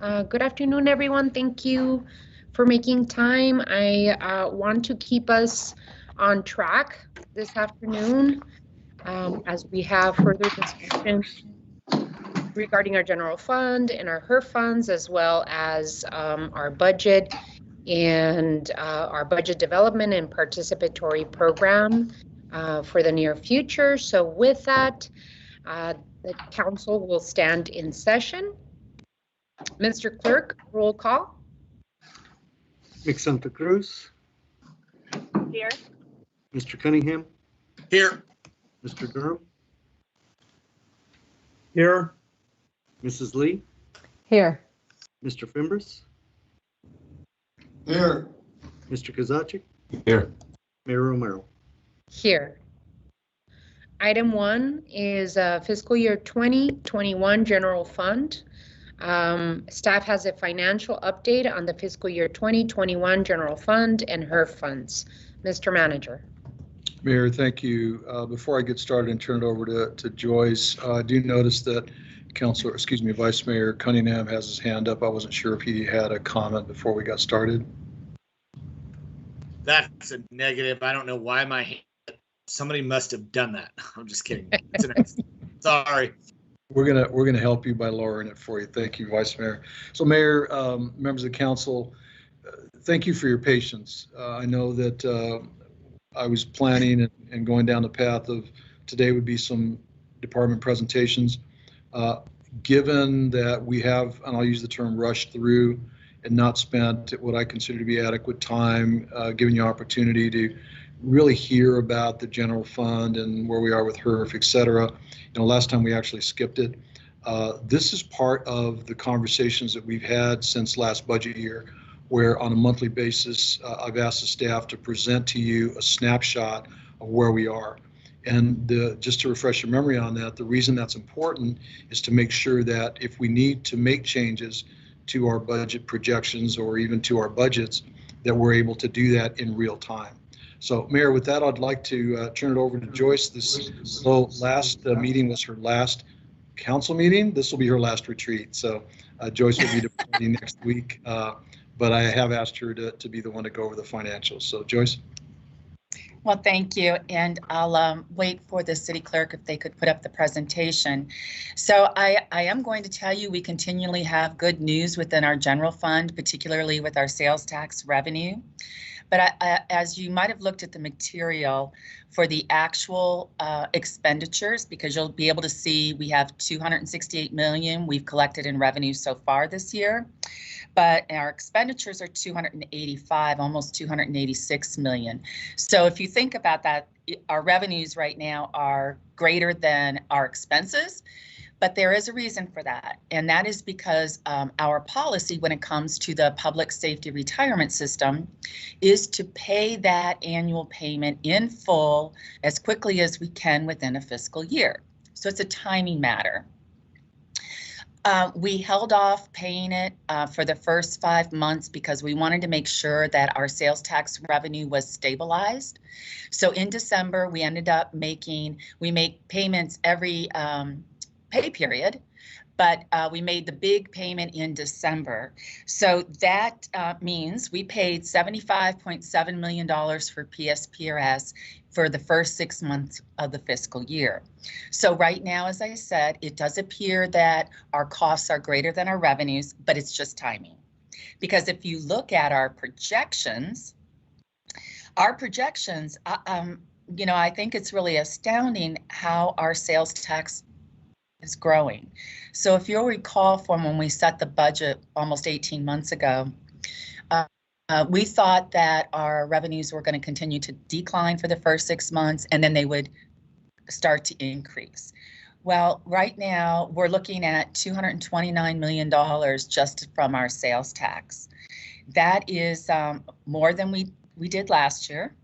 Uh, Good afternoon, everyone. Thank you for making time. I uh, want to keep us on track this afternoon um, as we have further discussion regarding our general fund and our HER funds, as well as um, our budget and uh, our budget development and participatory program uh, for the near future. So with that, uh, the council will stand in session. Mr. Clerk, roll call. Nick Santa Cruz, Here. Mr. Cunningham, Here. Mr. Durham, Here. Mrs. Lee, Here, Mr. Fimbres, Here. Mr. Kozaczek, Here. Mayor Romero. Here. Item one is uh, fiscal year 2021 general fund. Um, Staff has a financial update on the fiscal year 2021 general fund and her funds. Mr. Manager. Mayor, thank you. Uh, Before I get started and turn it over to to Joyce, uh, I do notice that Council, excuse me, Vice Mayor Cunningham has his hand up. I wasn't sure if he had a comment before we got started. That's a negative. I don't know why my, somebody must have done that. I'm just kidding. It's an accident. Sorry. We're gonna, we're gonna help you by lowering it for you. Thank you, Vice Mayor. So Mayor, um, members of the council, uh, thank you for your patience. Uh, I know that uh, I was planning and- and going down the path of today would be some department presentations. Uh, Given that we have, and I'll use the term rushed through and not spent what I consider to be adequate time, uh, giving you opportunity to really hear about the general fund and where we are with HERF, et cetera you know, last time we actually skipped it. Uh, This is part of the conversations that we've had since last budget year, where on a monthly basis, uh, I've asked the staff to present to you a snapshot of where we are. And the, just to refresh your memory on that, the reason that's important is to make sure that if we need to make changes to our budget projections or even to our budgets, that we're able to do that in real time. So Mayor, with that, I'd like to uh, turn it over to Joyce. This so last uh, meeting was her last council meeting. This will be her last retreat. So uh, Joyce will be departing next week. uh, But I have asked her to, to be the one to go over the financials. So Joyce? Well, thank you, and I'll um, wait for the city clerk if they could put up the presentation. So I, I am going to tell you, we continually have good news within our general fund, particularly with our sales tax revenue. But I- I- as you might have looked at the material for the actual uh, expenditures, because you'll be able to see we have 268 million we've collected in revenue so far this year. But our expenditures are 285, almost 286 million. So if you think about that, i- our revenues right now are greater than our expenses, but there is a reason for that. And that is because um, our policy when it comes to the public safety retirement system is to pay that annual payment in full as quickly as we can within a fiscal year. So it's a timing matter. Uh, we held off paying it uh, for the first five months because we wanted to make sure that our sales tax revenue was stabilized. So in December, we ended up making, we make payments every um, pay period, but uh, we made the big payment in December. So that uh, means we paid $75.7 million for PSPRS for the first six months of the fiscal year. So right now, as I said, it does appear that our costs are greater than our revenues, but it's just timing. Because if you look at our projections, our projections, uh, um, you know, I think it's really astounding how our sales tax is growing. So if you'll recall from when we set the budget almost 18 months ago, uh, uh, we thought that our revenues were going to continue to decline for the first six months and then they would start to increase. Well, right now, we're looking at $229 million just from our sales tax. That is um, more than we, we did last year.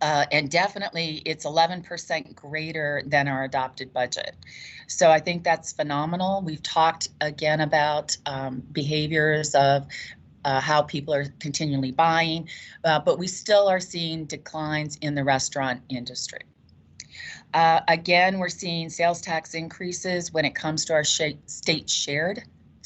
Uh, And definitely, it's 11% greater than our adopted budget. So I think that's phenomenal. We've talked again about um, behaviors of uh, how people are continually buying, uh, but we still are seeing declines in the restaurant industry. Uh, Again, we're seeing sales tax increases when it comes to our sha- state shared